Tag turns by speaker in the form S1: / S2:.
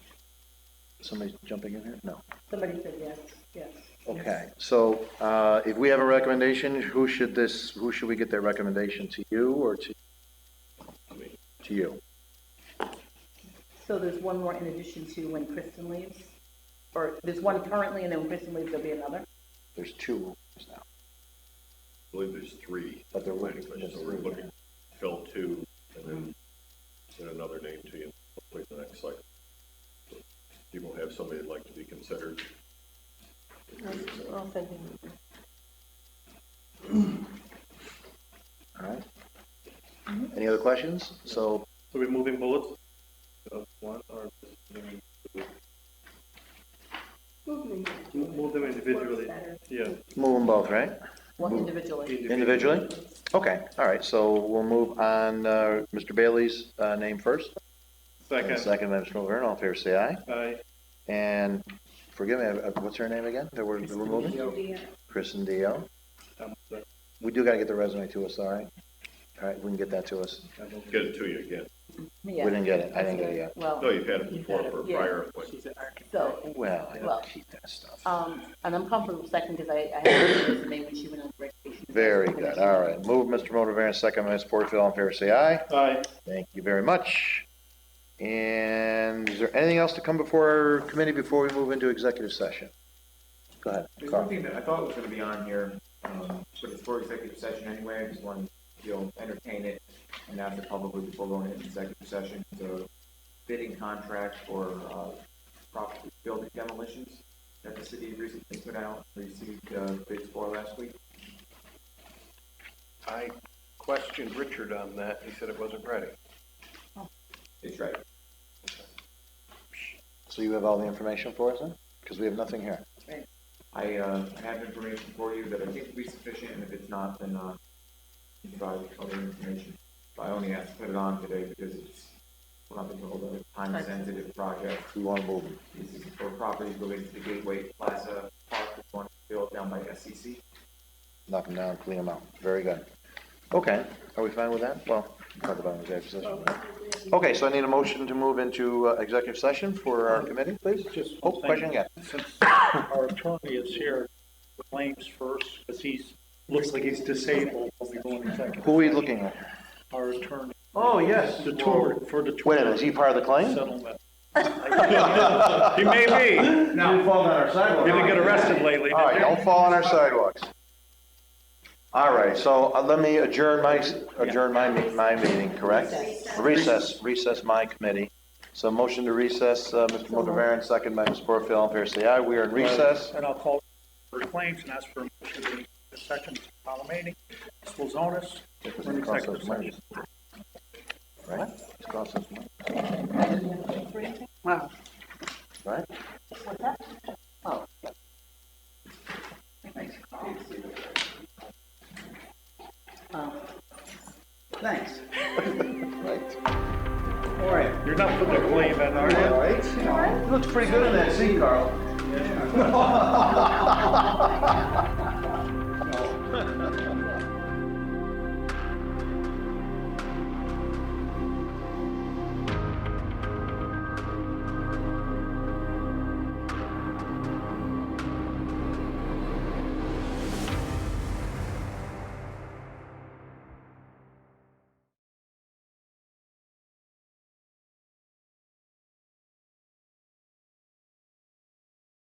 S1: Somebody's jumping in here? No.
S2: Somebody said yes, yes.
S1: Okay, so uh, if we have a recommendation, who should this, who should we get their recommendation? To you or to? To you.
S2: So there's one more in addition to when Kristen leaves? Or there's one currently, and then when Kristen leaves, there'll be another?
S1: There's two rooms now.
S3: I believe there's three.
S1: But they're
S3: planning
S1: looking-
S3: commissions, so we're looking, to fill two, and
S1: Mm-hmm.
S3: then send another name to you, hopefully the next cycle. So You will have somebody that'd like to be considered.
S4: I'll send him.
S1: All right. Any other questions? So
S5: So we're moving both, uh, one or just moving two? Move them. Move them individually, yeah.
S1: move them both, right?
S2: One
S1: Who?
S2: individually?
S1: Individually? Okay, all right, so we'll move on, uh, Mr. Bailey's uh, name first. And
S5: Second,
S1: Second by Mr. Laverne, all in favor, say aye.
S5: aye,
S1: And forgive me, uh, what's her name again that we're that we're moving? Kristen Dio.
S5: um, second,
S1: We do gotta get the resume to us, all right? All right, we can get that to us.
S3: Get it to you again.
S1: We didn't get it, I didn't get it yet.
S2: Well,
S3: No, you've had it before for a prior appointment.
S2: so,
S1: Well, I
S2: Well.
S1: don't keep that stuff.
S2: um, and I'm comfortable with second because I, I had a resume when she went on vacation.
S1: Very good, all right. Move Mr. Motivaren, second by Ms. Porterfield, all in favor, say aye.
S5: aye,
S1: Thank you very much. And is there anything else to come before our committee before we move into executive session? Go ahead,
S6: There's one
S1: Carl.
S6: thing that I thought was gonna be on here, um, but it's for executive session anyway, I just wanted, you'll entertain it, and that's it publicly before going into executive session, so bidding contract for, uh, property building demolitions that the city recently put out, received, uh, bids for last week.
S7: I questioned Richard on that. He said it wasn't ready.
S6: It's right,
S1: So you have all the information for us then? Because we have nothing here.
S6: I, uh, I have information for you that I think will be sufficient, and if it's not, then, uh, you can provide other information. I only asked to put it on today because it's, we're not gonna hold a time-sensitive project,
S1: We want to move them.
S6: This is for properties related to the Gateway Plaza Park, that's one built down by E SCC.
S1: knock them down, clean them out. Very good. Okay, are we fine with that? Well, talk about it in executive session. right? Okay, so I need a motion to move into uh, executive session for our committee, please.
S8: Just
S1: Oh,
S8: one thing.
S1: question again.
S8: Since our attorney is here, claims first, because he's, looks like he's disabled, we'll be going executive.
S1: Who are we looking at?
S8: Our attorney,
S1: Oh, yes.
S8: the tour, for the.
S1: Wait a minute, is he part of the claim?
S8: Settlement. He may be,
S1: No, fall down our sidewalk.
S8: didn't get arrested lately.
S1: All right, don't fall on our sidewalks. All right, so uh, let me adjourn my, adjourn my, me- my meeting, correct? Recess, recess my committee. So motion to recess, uh, Mr. Motivaren, second by Ms. Porterfield, all in favor, say aye. We are in recess.
S8: And I'll call for claims and ask for a motion to the second, Palomini, Spolzonis, for an executive session.
S1: Right? It's cost us money,
S2: Wow.
S1: Right?
S2: Oh. Oh.
S9: Thanks.
S1: Right?
S9: All right.
S8: You're not putting a claim in, are you?
S9: right.
S1: Looks pretty good in that seat, Carl.